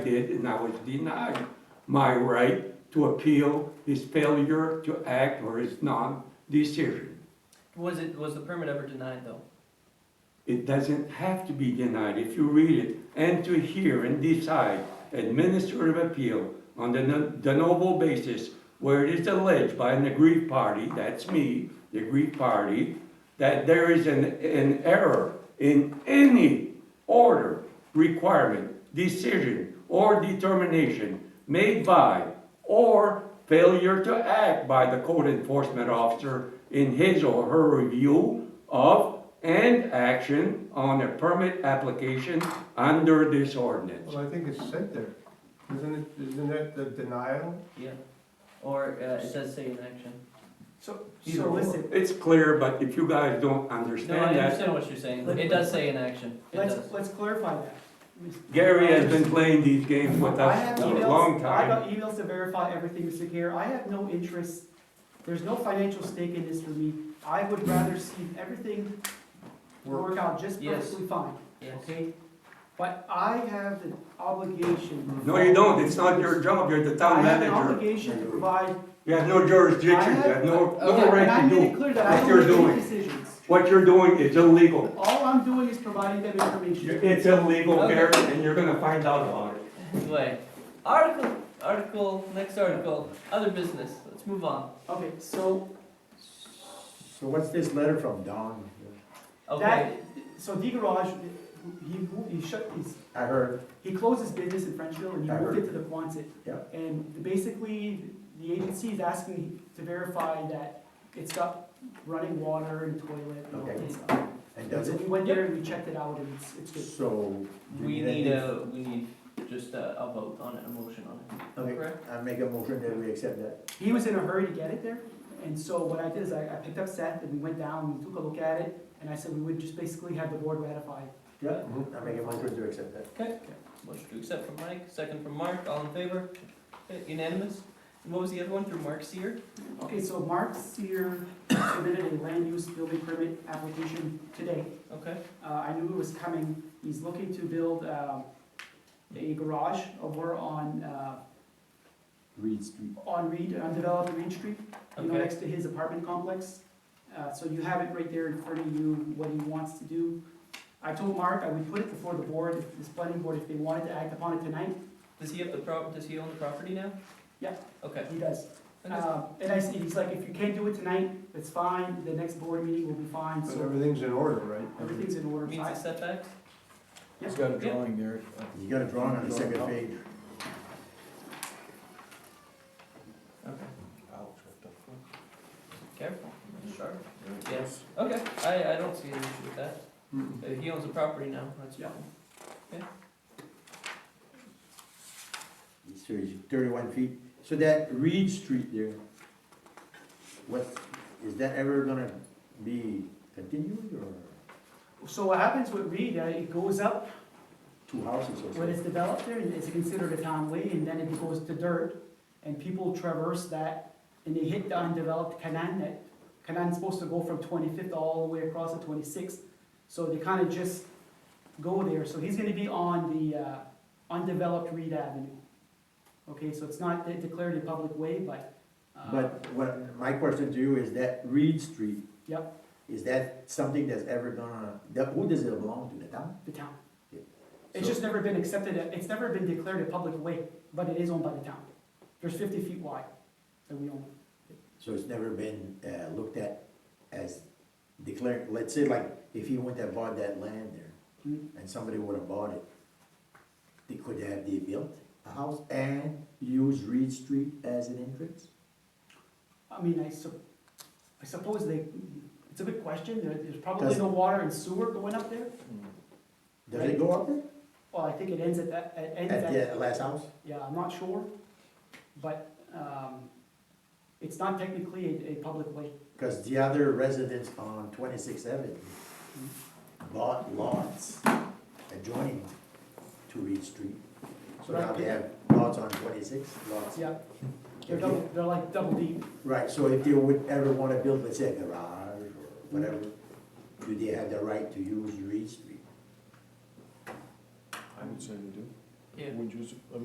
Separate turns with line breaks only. did, and I was denied my right to appeal his failure to act or his non-decision.
Was it, was the permit ever denied though?
It doesn't have to be denied if you read it and to hear and decide administrative appeal on the no- de novo basis where it is alleged by an aggrieved party, that's me, the aggrieved party, that there is an, an error in any order, requirement, decision, or determination made by or failure to act by the code enforcement officer in his or her review of and action on a permit application under this ordinance.
Well, I think it's said there. Isn't it, isn't that the denial?
Yeah. Or uh, it does say in action.
So,
Either
so
or.
listen,
It's clear, but if you guys don't
No, I
understand that,
understand what you're saying. It does say in action. It does.
let's, let's clarify that.
Gary has been playing these games with
I have
us for a
emails-
long
I
time.
got emails to verify everything, Mr. Gare, I have no interest, there's no financial stake in this for me. I would rather see everything work out just
Yes.
perfectly fine,
Yes.
okay? But I have an obligation.
No, you don't, it's not your job, you're the town
I have an
manager.
obligation to provide.
You have no jurisdiction, you have no,
Okay,
no
and I
right to
made it
do.
clear that
what
I
you're
don't make
doing.
any decisions.
What you're doing is illegal.
All I'm doing is providing them information.
It's illegal,
Okay.
Gary, and you're gonna find out about it.
Anyway, article, article, next article, other business. Let's move on.
Okay, so
So what's this letter from Don?
Okay.
That, so D Garage, he, moved- he shut, he's,
I heard,
he closed his business in Frenchville and he
I
moved it
heard.
to the Quonset.
Yeah.
And basically, the agency is asking to verify that it's got running water and toilet and all
Okay.
that stuff.
and
And
does
so
it?
we went there and we checked it out and it's, it's good.
So. do
We
then
need a, we need just a, a vote on it, a motion on it.
make-
correct?
I make a motion that we accept that.
He was in a hurry to get it there, and so what I did is I, I picked up Seth and we went down, we took a look at it, and I said we would just basically have the board ratify.
Yeah. I make a motion to accept that.
Okay. Motion to accept from Mike, second from Mark, all in favor? Okay, Unanimous? And what was the other one through Mark Seer?
Okay, so Mark Seer submitted a land use building permit application today.
Okay,
Uh, I knew it was coming. He's looking to build, um, a garage over on, uh,
Reed Street.
on Reed, undeveloped Reed Street, you know,
Okay.
next to his apartment complex. Uh, so you have it right there in front of you, what he wants to do. I told Mark I would put it before the board, if this planning board, if they wanted to act upon it tonight,
does he have the prop, does he own the property now?
Yeah.
Okay.
he does.
Okay.
Uh, and I see, he's like, if you can't do it tonight, it's fine, the next board meeting will be fine,
But
so
everything's in order, right?
everything's in order. So
Meets
I-
the setbacks?
He's got a
Yeah.
drawing there.
You got a drawing on the second page.
Okay.
Ouch.
Careful, sharp. Yes. Okay, I, I don't see an issue with that.
Mm-mm.
Uh, He owns the property now, that's
Yeah.
fine.
So it's thirty-one feet. So that Reed Street there, what, is that ever gonna be continued or
So what happens with Reed, uh, it goes up
two houses or
When
something?
it's developed there, it's considered a town way, and then it goes to dirt, and people traverse that, and they hit the undeveloped Canaan that, Canaan's supposed to go from twenty-fifth all the way across to twenty-sixth, so they kinda just go there, so he's gonna be on the, uh, undeveloped Reed Avenue. Okay, so it's not de- declared a public way, but, uh,
But what, my question to you is that Reed Street,
yep,
is that something that's ever gonna, that, who does it belong to, the town?
the town.
Yeah.
It's
So-
just never been accepted, uh, it's never been declared a public way, but it is owned by the town. There's fifty feet wide that we own.
So it's never been, uh, looked at as declared, let's say like, if he went and bought that land there,
Hmm.
and somebody would have bought it, they could have, they built a house and use Reed Street as an entrance?
I mean, I sup, I suppose they, it's a good question, there, there's probably
Does-
no water and sewer going up there.
Does it go up there?
Well, I think it ends at that, it ends
At
at,
the last house?
yeah, I'm not sure, but, um, it's not technically a, a public way.
Cause the other residents on twenty-six Avenue bought lots adjoining to Reed Street. So now they have lots on twenty-six, lots.
Yeah, they're double, they're like double deep.
Right, so if they would ever wanna build, let's say a garage or whatever, do they have the right to use Reed Street?
I would say they do.
Yeah.
Would you, uh, s- I